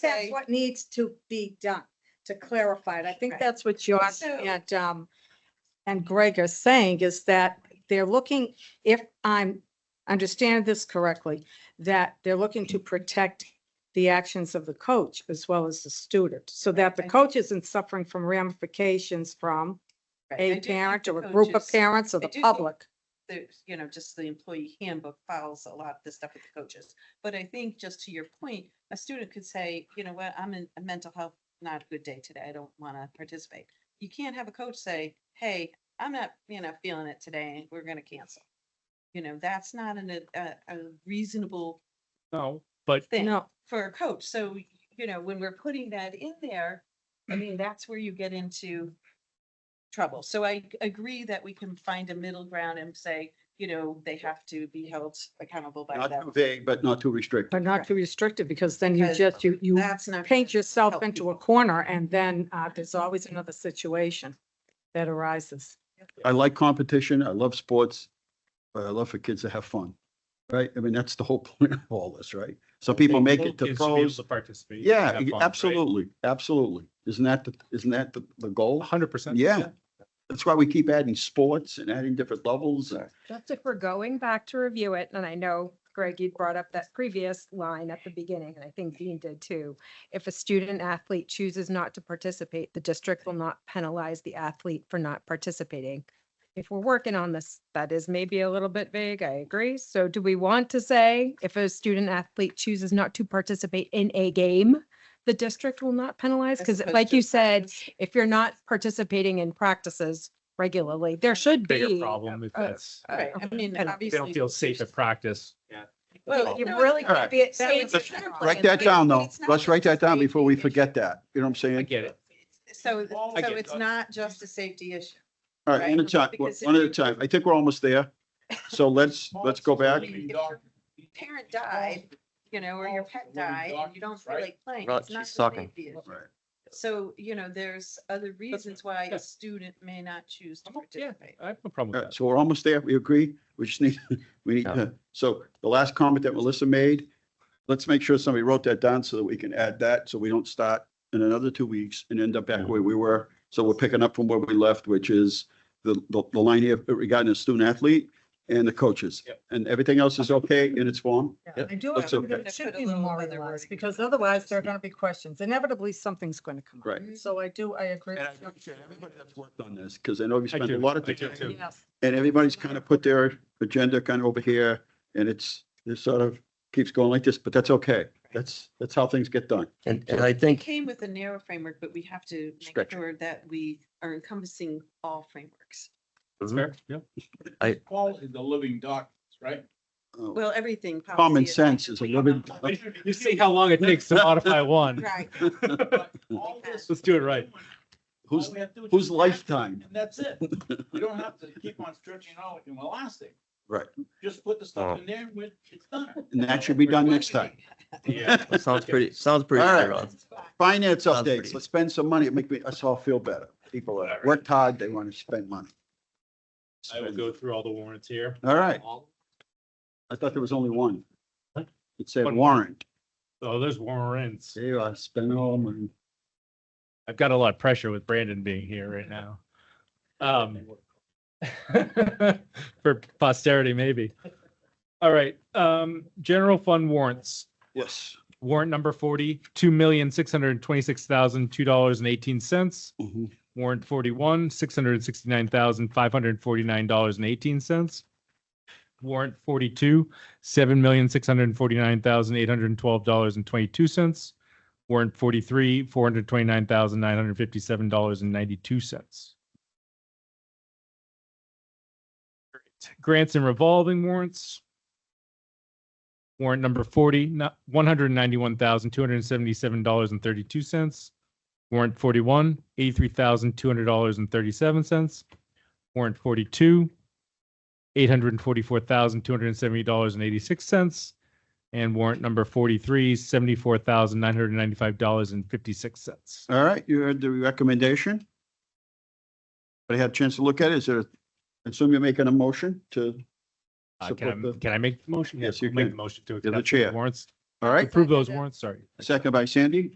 that's say, what needs to be done, to clarify it. I think Right. that's what Josh So- and, um, and Greg are saying is that they're looking, if I'm, understand this correctly, that they're looking to protect the actions of the coach as well as the student, so that the Right. coach isn't suffering from ramifications from Right, I a do think parent the or a group of coaches- parents or I the do think- public. the, you know, just the employee handbook files a lot of this stuff with the coaches. But I think just to your point, a student could say, you know what, I'm in a mental health, not a good day today. I don't want to participate. You can't have a coach say, hey, I'm not, you know, feeling it today. We're going to cancel. You know, that's not an, a, a a reasonable No, but thing No, for a coach. So, you know, when we're putting that in there, Mm-hmm. I mean, that's where you get into trouble. So I g- agree that we can find a middle ground and say, you know, they have to be held accountable by Not that. too vague, but not too restrictive. but not too restrictive, because then you Because just, you, you That's not. paint gonna yourself help into a people. corner and then uh, there's always another situation that arises. I like competition. I love sports, but I love for kids to have fun, right? I mean, that's the whole point of all this, right? Some people make it to kids should be able pros. To participate. Yeah, absolutely, absolutely. Isn't that, the isn't that the, the goal? hundred percent. Yeah. That's why we keep adding sports and adding different levels. Just if we're going back to review it, and I know Greg, you brought up that previous line at the beginning, and I think Dean did too. If a student athlete chooses not to participate, the district will not penalize the athlete for not participating. If we're working on this, that is maybe a little bit vague, I agree. So do we want to say if a student athlete chooses not to participate in a game, the district will not penalize? As Because opposed like to you said, practice. if you're not participating in practices regularly, there should be. Bigger problem if a- that's, uh, Right, I mean, penalty. they obviously. don't feel safe at practice. Well, You no, really All right. can't be at That state. was a fair plan, Write that but- down but though. it's not Let's write that just a down before we safety forget that. You know what I'm I saying? get it. issue. So, I so get it's it. not just a safety issue. All right, one at a Right. time, Because if one at a you- time. I think we're almost there. So let's, let's go back. Parent died, you know, or your pet died, and you don't feel like playing. Right, It's not she's just sucking. safety issue. Right. So, you know, there's other reasons why Yeah. a student may not choose to Uh-huh. I'm o- yeah. participate. I have no problem All with right, that. so we're almost there. We agree. We just need, we need, Yeah. to- so the last comment that Melissa made, let's make sure somebody wrote that down so that we can add that, so we don't start in another two weeks and end up back Mm-hmm. where we were. So we're picking up from where we left, which is the, the, the line here regarding the student athlete and the coaches. Yep. And everything else is okay in its form? I do, That's agree okay. that it Put should a be little other memorialized, wording. because otherwise there are going to be questions. Inevitably, something's going to come up. Right. So I do, I agree. And I with you. appreciate everybody that's worked on this, because I know we I spent a do, lot of I do time. too. Yes. And everybody's kind of put their agenda kind of over here, and it's, it sort of keeps going like this, but that's okay. That's, that's how things get done. And, and I think Came with a narrow framework, but we have to make Stretch it. sure that we are encompassing all frameworks. Mm-hmm. That's fair. Yeah. Quality, the living documents, right? Oh, Well, everything. Common policy is- sense is a living. You see how long it takes to modify one. Right. All this- Let's do it right. Who's, all we have to do is whose just lifetime? act, And that's it. We don't have to keep on stretching it out like an elastic. Right. Just put the stuff in there when it's done. And that should be done next time. Yeah. that sounds pretty, sounds pretty All right. fair on. Finance Sounds updates, pretty- let's spend some money, make me- us all feel better. People have worked hard, they want to spend money. I will go through all the warrants here. All right, All- I thought there was only one. What? It said One. warrant. Oh, there's warrants. There you are, spending all the money. I've got a lot of pressure with Brandon being here right now. Um, for posterity, maybe. All right, um, general fund warrants. Yes. Warrant number forty, two million, six hundred and twenty-six thousand, two dollars and eighteen cents. Mhm. Warrant forty-one, six hundred and sixty-nine thousand, five hundred and forty-nine dollars and eighteen cents. Warrant forty-two, seven million, six hundred and forty-nine thousand, eight hundred and twelve dollars and twenty-two cents. Warrant forty-three, four hundred and twenty-nine thousand, nine hundred and fifty-seven dollars and ninety-two cents. Grants and revolving warrants. Warrant number forty, one hundred and ninety-one thousand, two hundred and seventy-seven dollars and thirty-two cents. Warrant forty-one, eighty-three thousand, two hundred dollars and thirty-seven cents. Warrant forty-two, eight hundred and forty-four thousand, two hundred and seventy dollars and eighty-six cents. And warrant number forty-three, seventy-four thousand, nine hundred and ninety-five dollars and fifty-six cents. All right, you heard the recommendation. But I had a chance to look at it. Is there, I assume you're making a motion to, Uh, can Support I, the- can I make the motion? Yes, you I'll make can. the Motion to the accept chair. the warrants, all right, approve those warrants, sorry. second by Sandy.